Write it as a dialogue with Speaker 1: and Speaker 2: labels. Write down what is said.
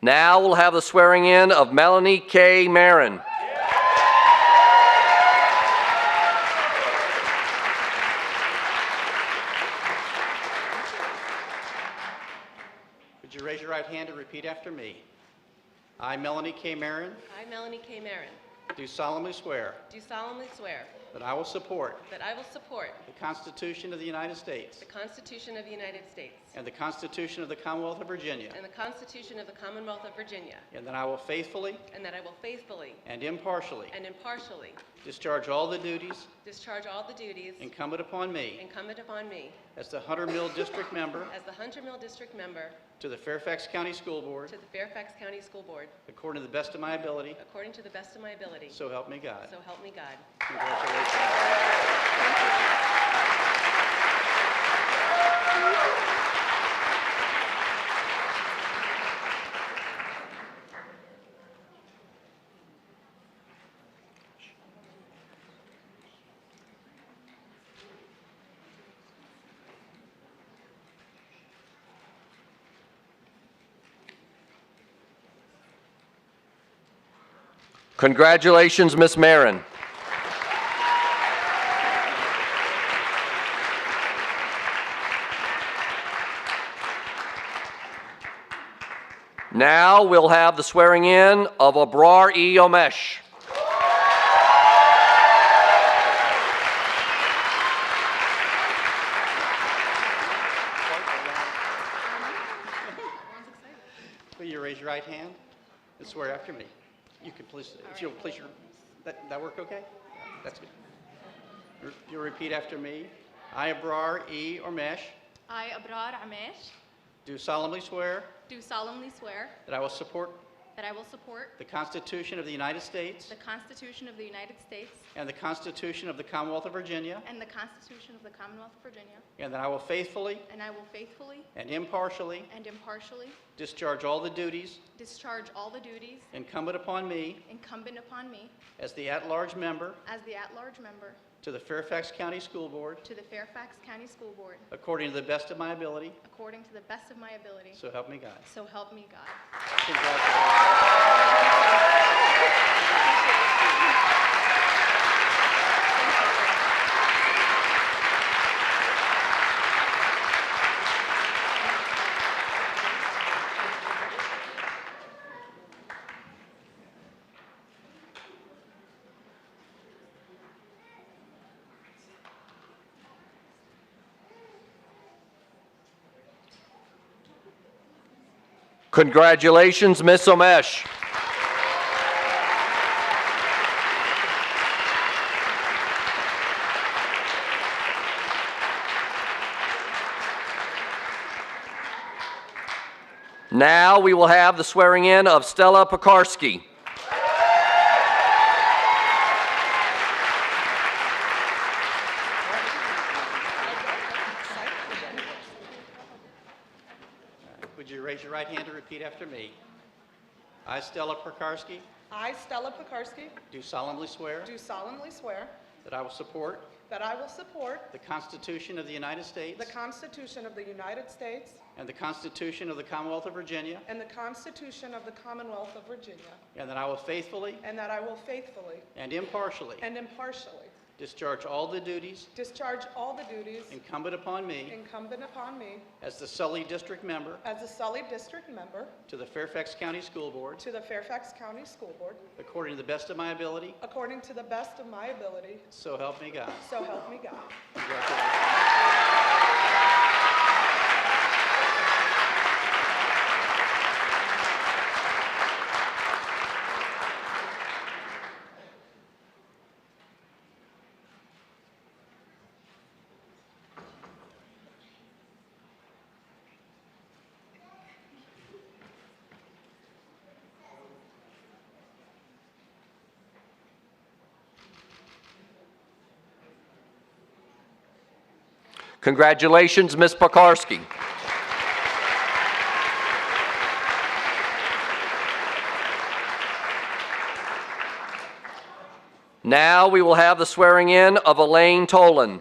Speaker 1: Now we'll have the swearing in of Melanie K. Marin.
Speaker 2: Would you raise your right hand and repeat after me? I, Melanie K. Marin,
Speaker 3: I, Melanie K. Marin,
Speaker 2: do solemnly swear
Speaker 3: do solemnly swear
Speaker 2: that I will support
Speaker 3: that I will support
Speaker 2: the Constitution of the United States
Speaker 3: the Constitution of the United States
Speaker 2: and the Constitution of the Commonwealth of Virginia,
Speaker 3: and the Constitution of the Commonwealth of Virginia,
Speaker 2: and that I will faithfully
Speaker 3: and that I will faithfully
Speaker 2: and impartially
Speaker 3: and impartially
Speaker 2: discharge all the duties
Speaker 3: discharge all the duties
Speaker 2: incumbent upon me
Speaker 3: incumbent upon me
Speaker 2: as the Hunter Mill District Member
Speaker 3: as the Hunter Mill District Member
Speaker 2: to the Fairfax County School Board
Speaker 3: to the Fairfax County School Board,
Speaker 2: according to the best of my ability,
Speaker 3: according to the best of my ability.
Speaker 2: so help me God.
Speaker 3: So help me God.
Speaker 2: Congratulations.
Speaker 1: Congratulations, Miss Marin. Now we'll have the swearing in of Abrar E. Omesh.
Speaker 2: Will you raise your right hand and swear after me? You can please, if you'll please, your, that, that work okay? That's good. Re- You'll repeat after me. I, Abrar E. Ormesh,
Speaker 4: I, Abrar Amesh,
Speaker 2: do solemnly swear
Speaker 4: do solemnly swear
Speaker 2: that I will support
Speaker 4: that I will support
Speaker 2: the Constitution of the United States
Speaker 4: the Constitution of the United States
Speaker 2: and the Constitution of the Commonwealth of Virginia,
Speaker 4: and the Constitution of the Commonwealth of Virginia,
Speaker 2: and that I will faithfully
Speaker 4: and I will faithfully
Speaker 2: and impartially
Speaker 4: and impartially
Speaker 2: discharge all the duties
Speaker 4: discharge all the duties
Speaker 2: incumbent upon me
Speaker 4: incumbent upon me
Speaker 2: as the at-large member
Speaker 4: as the at-large member
Speaker 2: to the Fairfax County School Board
Speaker 4: to the Fairfax County School Board,
Speaker 2: according to the best of my ability,
Speaker 4: according to the best of my ability.
Speaker 2: so help me God.
Speaker 4: So help me God.
Speaker 2: Congratulations.
Speaker 1: Congratulations, Miss Omesh. Now we will have the swearing in of Stella Pekarski.
Speaker 2: Would you raise your right hand and repeat after me? I, Stella Perkarski,
Speaker 5: I, Stella Pekarsky,
Speaker 2: do solemnly swear
Speaker 5: do solemnly swear
Speaker 2: that I will support
Speaker 5: that I will support
Speaker 2: the Constitution of the United States
Speaker 5: the Constitution of the United States
Speaker 2: and the Constitution of the Commonwealth of Virginia,
Speaker 5: and the Constitution of the Commonwealth of Virginia,
Speaker 2: and that I will faithfully
Speaker 5: and that I will faithfully
Speaker 2: and impartially
Speaker 5: and impartially
Speaker 2: discharge all the duties
Speaker 5: discharge all the duties
Speaker 2: incumbent upon me
Speaker 5: incumbent upon me
Speaker 2: as the Sully District Member
Speaker 5: as a Sully District Member
Speaker 2: to the Fairfax County School Board,
Speaker 5: to the Fairfax County School Board,
Speaker 2: according to the best of my ability,
Speaker 5: according to the best of my ability,
Speaker 2: so help me God.
Speaker 5: so help me God.
Speaker 2: Congratulations.
Speaker 1: Congratulations, Miss Pekarski. Now we will have the swearing in of Elaine Tolan.